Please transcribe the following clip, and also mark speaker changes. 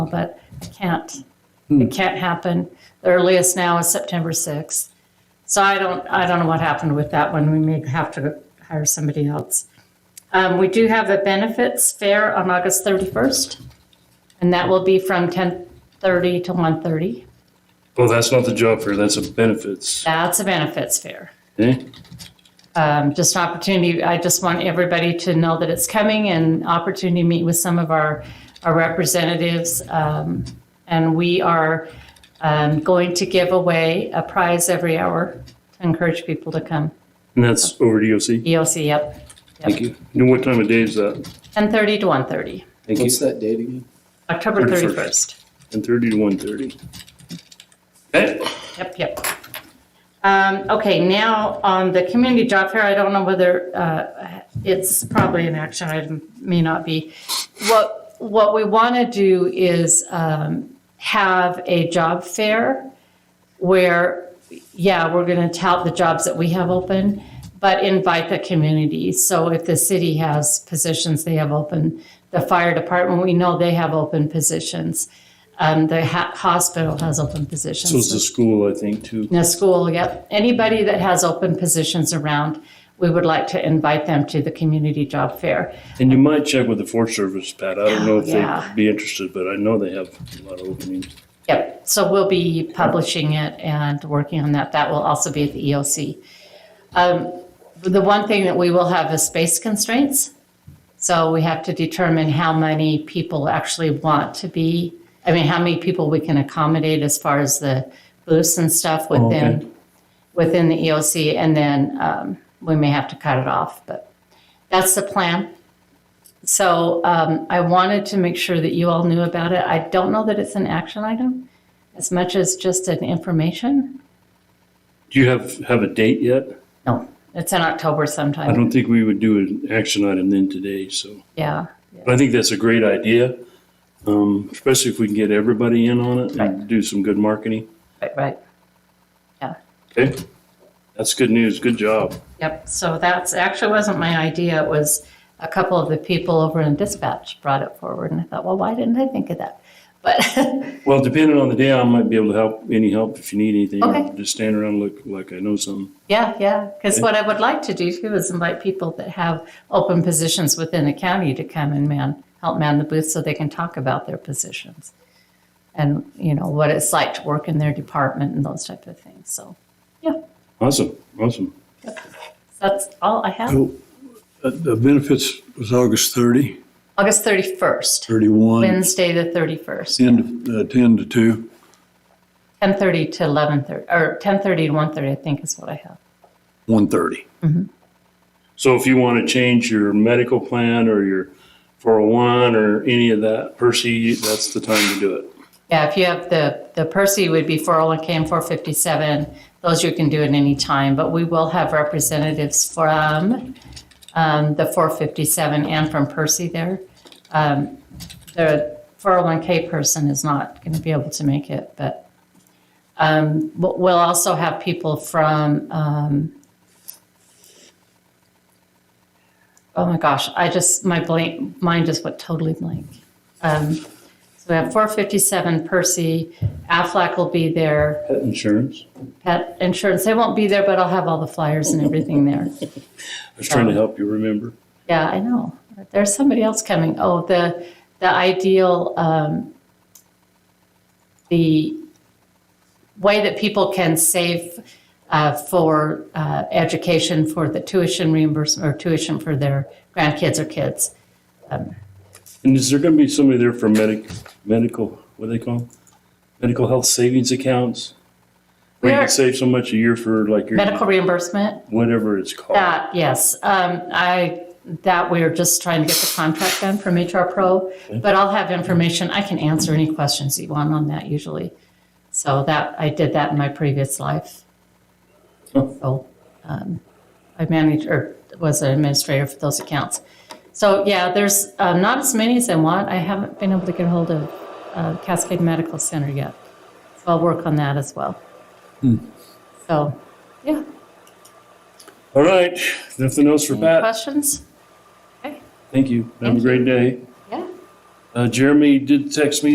Speaker 1: but it can't. It can't happen. The earliest now is September 6th. So I don't, I don't know what happened with that one. We may have to hire somebody else. Um, we do have a benefits fair on August 31st, and that will be from 10:30 to 1:30.
Speaker 2: Well, that's not the job fair, that's a benefits. Eh?
Speaker 1: That's a benefits fair.
Speaker 2: Okay?
Speaker 1: um, just an opportunity. I just want everybody to know that it's coming and opportunity to meet with some of our, our representatives. Um, and we are um, going to give away a prize every hour to encourage people to come.
Speaker 2: And that's over DOC.
Speaker 1: EOC, yep,
Speaker 2: Thank you. And what time of day is that?
Speaker 1: 10:30 to 1:30,
Speaker 2: Thank you.
Speaker 3: What's that date again?
Speaker 1: October
Speaker 2: 31st.
Speaker 1: 31st.
Speaker 2: Ten thirty to one thirty. Okay,
Speaker 1: Yep, yep. Um, okay, now on the community job fair, I don't know whether, uh, it's probably an action item, may not be. What, what we want to do is, um, have a job fair where, yeah, we're going to tout the jobs that we have open, but invite the community. So if the city has positions they have open, the fire department, we know they have open positions. Um, the ha- hospital has open positions.
Speaker 2: so it's the school, I think, too.
Speaker 1: Now, school, yep. Anybody that has open positions around, we would like to invite them to the community job fair.
Speaker 2: And you might check with the Forest Service, Pat. I don't know if
Speaker 1: Yeah.
Speaker 2: they'd be interested, but I know they have a lot of openings.
Speaker 1: Yep, so we'll be publishing it and working on that. That will also be at the EOC. Um, The one thing that we will have is space constraints. So we have to determine how many people actually want to be, I mean, how many people we can accommodate as far as the booths and stuff
Speaker 2: okay.
Speaker 1: within, within the EOC. And then um, we may have to cut it off, but that's the plan. So um, I wanted to make sure that you all knew about it. I don't know that it's an action item as much as just an information.
Speaker 2: Do you have, have a date yet?
Speaker 1: No, it's in October
Speaker 2: I
Speaker 1: sometime.
Speaker 2: don't think we would do an action item then today, so.
Speaker 1: Yeah.
Speaker 2: But I think that's a great idea, um, especially if we can get everybody in on it and do some good marketing.
Speaker 1: Right, right.
Speaker 2: Okay? That's good news. Good job.
Speaker 1: Yep. So that's actually wasn't my idea. It was a couple of the people over in dispatch brought it forward, and I thought, well, why didn't I think of that? But
Speaker 2: Well, depending on the day, I might be able to help, any help if you need anything.
Speaker 1: Okay.
Speaker 2: Just stand around, and look like I know something.
Speaker 1: yeah, yeah. Because what I would like to do too is invite people that have open positions within the county to come and man help man the booth so they can talk about their positions and you know what it's like to work in their department and those type of things. So
Speaker 2: Awesome, awesome.
Speaker 1: that's all I have.
Speaker 4: Cool. Uh, The benefits was August 30,
Speaker 1: August thirty first,
Speaker 4: 31,
Speaker 1: Wednesday the thirty first.
Speaker 4: 10 to, uh, 10 to 2.
Speaker 1: 10:30 to 11:30, or 10:30 to 1:30, I think is what I have.
Speaker 4: 1:30.
Speaker 2: So if you want to change your medical plan or your 401 or any of that, Percy, that's the time to do it.
Speaker 1: Yeah, if you have the, the Percy would be 401K and 457, those you can do at any time, but we will have representatives from um, the 457 and from Percy there. Um, The 401K person is not going to be able to make it, but um, but we'll also have people from, um, oh my gosh, I just, my blank, mind just went totally blank. So we have 457 Percy, Aflac will be there,
Speaker 2: Pet insurance.
Speaker 1: Pet Insurance, they won't be there, but I'll have all the flyers and everything there.
Speaker 2: I was trying to help you remember.
Speaker 1: Yeah, I know. There's somebody else coming. Oh, the, the ideal, um, the way that people can save, uh, for, uh, education for the tuition reimbursement or tuition for their grandkids or kids.
Speaker 2: And is there going to be somebody there for medic, medical, what do they call 'em? Medical health savings accounts? Where you
Speaker 1: We are-
Speaker 2: can save so much a year for like your,
Speaker 1: Medical reimbursement?
Speaker 2: whatever it's called.
Speaker 1: That, yes. Um, I, that we're just trying to get the contract done from HR Pro, but I'll have information. I can answer any questions you want on that usually. So that, I did that in my previous life. So, um, I managed, or was an administrator for those accounts. So, yeah, there's, uh, not as many as I want. I haven't been able to get hold of, uh, Cascade Medical Center yet. So I'll work on that as well. So, yeah,
Speaker 2: All right, nothing else for Pat?
Speaker 1: questions? Okay.
Speaker 2: Thank you. Have a
Speaker 1: Thank
Speaker 2: great day.
Speaker 1: Yeah.
Speaker 2: Uh, Jeremy did text me